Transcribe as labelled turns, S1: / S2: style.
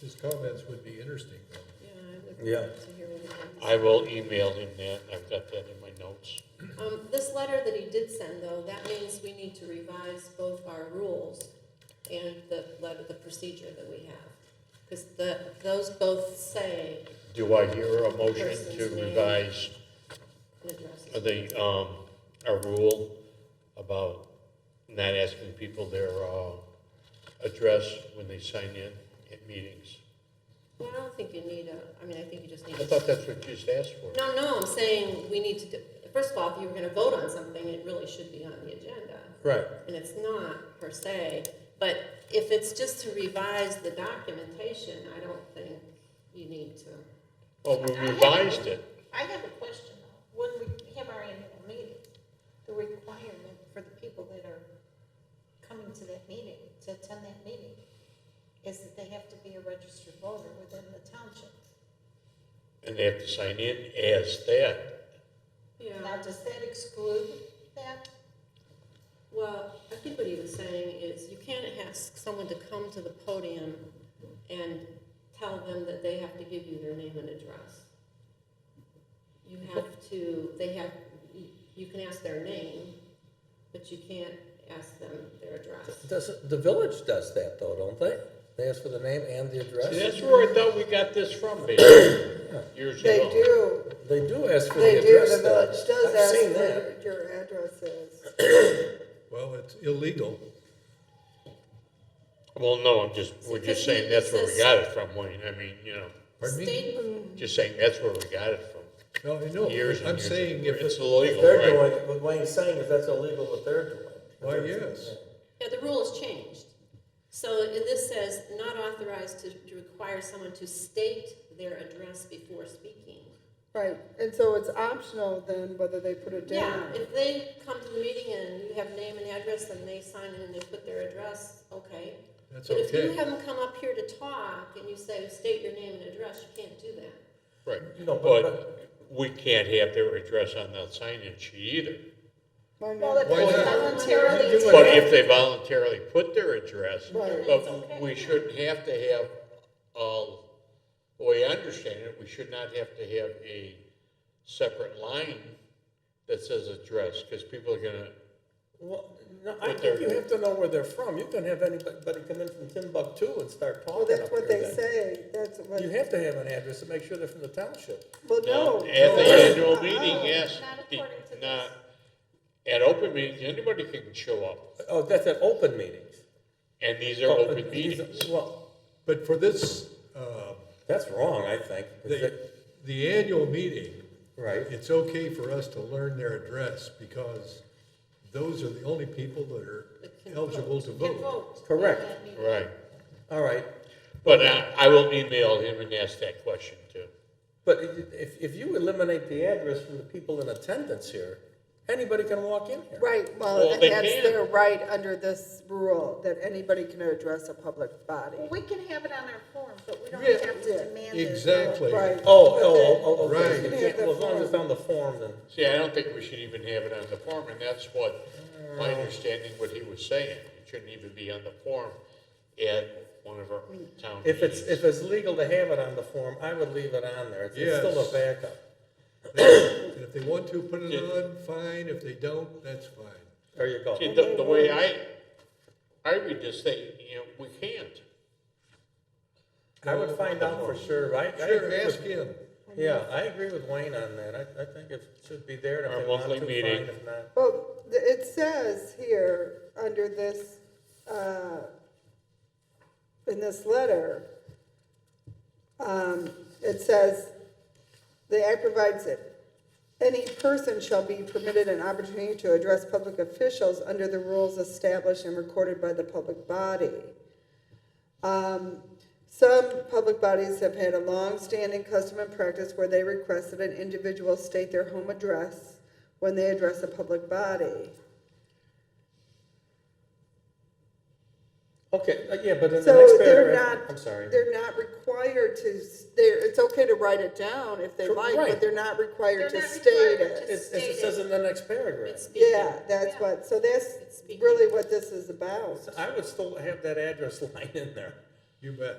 S1: His comments would be interesting.
S2: Yeah, I would
S3: Yeah.
S2: love to hear what he has.
S4: I will email him that, I've got that in my notes.
S2: Um, this letter that he did send, though, that means we need to revise both our rules and the letter, the procedure that we have. Because the, those both say
S4: Do I hear a motion to
S2: Person's name.
S4: revise
S2: an address.
S4: the, um, our rule about not asking people their, uh, address when they sign in at meetings?
S2: Well, I don't think you need a, I mean, I think you just need
S4: I
S2: to.
S4: thought that's what you just asked for.
S2: No, no, I'm saying we need to, do- first of all, if you were gonna vote on something, it really should be on the agenda.
S3: Right.
S2: And it's not per se, but if it's just to revise the documentation, I don't think you need to.
S4: Well, we revised it.
S5: I have a question though. When we have our annual meeting, the requirement for the people that are coming to that meeting, to attend that meeting, is that they have to be a registered voter within the township.
S4: And they have to sign in as that.
S5: Now, does that exclude that?
S2: Well, I think what he was saying is you can't ask someone to come to the podium and tell them that they have to give you their name and address. You have to, they have, you- you can ask their name, but you can't ask them their address.
S3: Does, the village does that though, don't they? They ask for the name and the
S4: See,
S3: address?
S4: that's where I thought we got this from, basically, years ago.
S6: They do,
S3: They do ask for the
S6: they do,
S3: address.
S6: the
S3: though.
S6: village does
S3: I've
S6: ask
S3: seen
S6: for
S3: that.
S6: what your address is.
S1: Well, it's illegal.
S4: Well, no, I'm just, we're just saying that's where we got it from, Wayne, I mean, you know,
S1: Pardon me?
S2: State
S4: just saying that's where we got it from,
S1: No, I know.
S4: years and
S1: I'm
S4: years
S1: saying
S4: ago.
S1: if
S4: It's
S1: it's,
S3: If
S4: illegal,
S3: they're
S4: right?
S3: doing, it, what Wayne's saying is that's illegal what they're doing.
S1: Why, yes.
S2: Yeah, the rule has changed. So, and this says, not authorized to to require someone to state their address before speaking.
S6: Right, and so it's optional then whether they put it
S2: Yeah,
S6: down.
S2: if they come to the meeting and you have name and address, and they sign in and they put their address, okay.
S1: That's
S2: But if you
S1: okay.
S2: have them come up here to talk and you say, state your name and address, you can't do that.
S4: Right,
S3: No, but-
S4: but we can't have their address on the sign-in sheet either.
S6: Why not?
S5: Well, if
S1: Why
S5: they
S1: not?
S5: voluntarily
S1: You do it.
S4: But if they voluntarily put their address,
S6: Right.
S4: but we shouldn't have to have, uh, the way I understand it, we should not have to have a separate line that says address, because people are gonna,
S3: Well, no, I
S4: What
S3: think
S4: they're-
S3: you have to know where they're from. You can have anybody come in from Timbuktu and start
S6: Well,
S3: talking
S6: that's
S3: up
S6: what
S3: there
S6: they
S3: then.
S6: say, that's what,
S3: You have to have an address to make sure they're from the township.
S6: well,
S4: now,
S6: no.
S4: at the
S6: no.
S4: annual meeting, yes.
S5: Not
S4: the-
S5: according to this.
S4: not- At open meetings, anybody can show up,
S3: Oh, that's at open meetings.
S4: and these are
S3: Oh,
S4: open
S3: but these-
S4: meetings.
S3: Well,
S1: But for this, uh,
S3: that's wrong, I think.
S1: the, the annual meeting,
S3: Right.
S1: it's okay for us to learn their address because those are the only people that are eligible to
S5: can
S1: vote.
S5: vote.
S3: Correct.
S5: at that meeting.
S4: Right,
S3: All right,
S4: but I, I will email him and ask that question too.
S3: but i- if, if you eliminate the address from the people in attendance here, anybody can walk in here.
S6: Right,
S4: Well,
S6: well,
S4: they
S6: that's
S4: can.
S6: their right under this rule, that anybody can address a public body.
S5: Well, we can have it on our form, but we don't
S1: Yeah.
S5: have
S6: Yeah.
S5: to demand it.
S1: Exactly.
S6: Right.
S3: Oh, oh, oh, oh,
S1: Right.
S3: okay. You can't- Well, as long as it's on the form, then.
S4: See, I don't think we should even have it on the form, and that's what, my understanding what he was saying, it shouldn't even be on the form at one of our town
S3: If it's,
S4: meetings.
S3: if it's legal to have it on the form, I would leave it on there. It's it's still a
S1: Yes.
S3: backup.
S1: And if they want to put it on, fine. If they don't, that's fine.
S3: There you go.
S4: See, the, the way I, I read this thing, you know, we can't.
S3: I would find out for sure, right? I
S1: Sure,
S3: agree
S1: ask
S3: with-
S1: him.
S3: Yeah, I agree with Wayne on that. I, I think it should be there. and
S4: Our
S3: If they want
S4: monthly
S3: to,
S4: meeting.
S3: fine. If not,
S6: Well, th- it says here, under this, uh, in this letter, um, it says, the act provides it. Any person shall be permitted an opportunity to address public officials under the rules established and recorded by the public body. Um, some public bodies have had a long-standing custom and practice where they request that an individual state their home address when they address a public body.
S3: Okay, uh, yeah, but in the
S6: So
S3: next
S6: they're
S3: paragraph,
S6: not,
S3: I'm sorry.
S6: they're not required to, s- they're, it's okay to write it down if they
S3: Cor-
S6: like,
S3: right.
S6: but they're not required
S5: They're
S6: to
S5: not
S6: state
S5: required
S6: it.
S5: to-
S3: It's, it's- it says in the next paragraph.
S2: It's speaking.
S6: Yeah, that's
S5: Yeah.
S6: what, so that's
S2: It's speaking.
S6: really what this is about.
S3: I would still have that address line in there.
S1: You bet.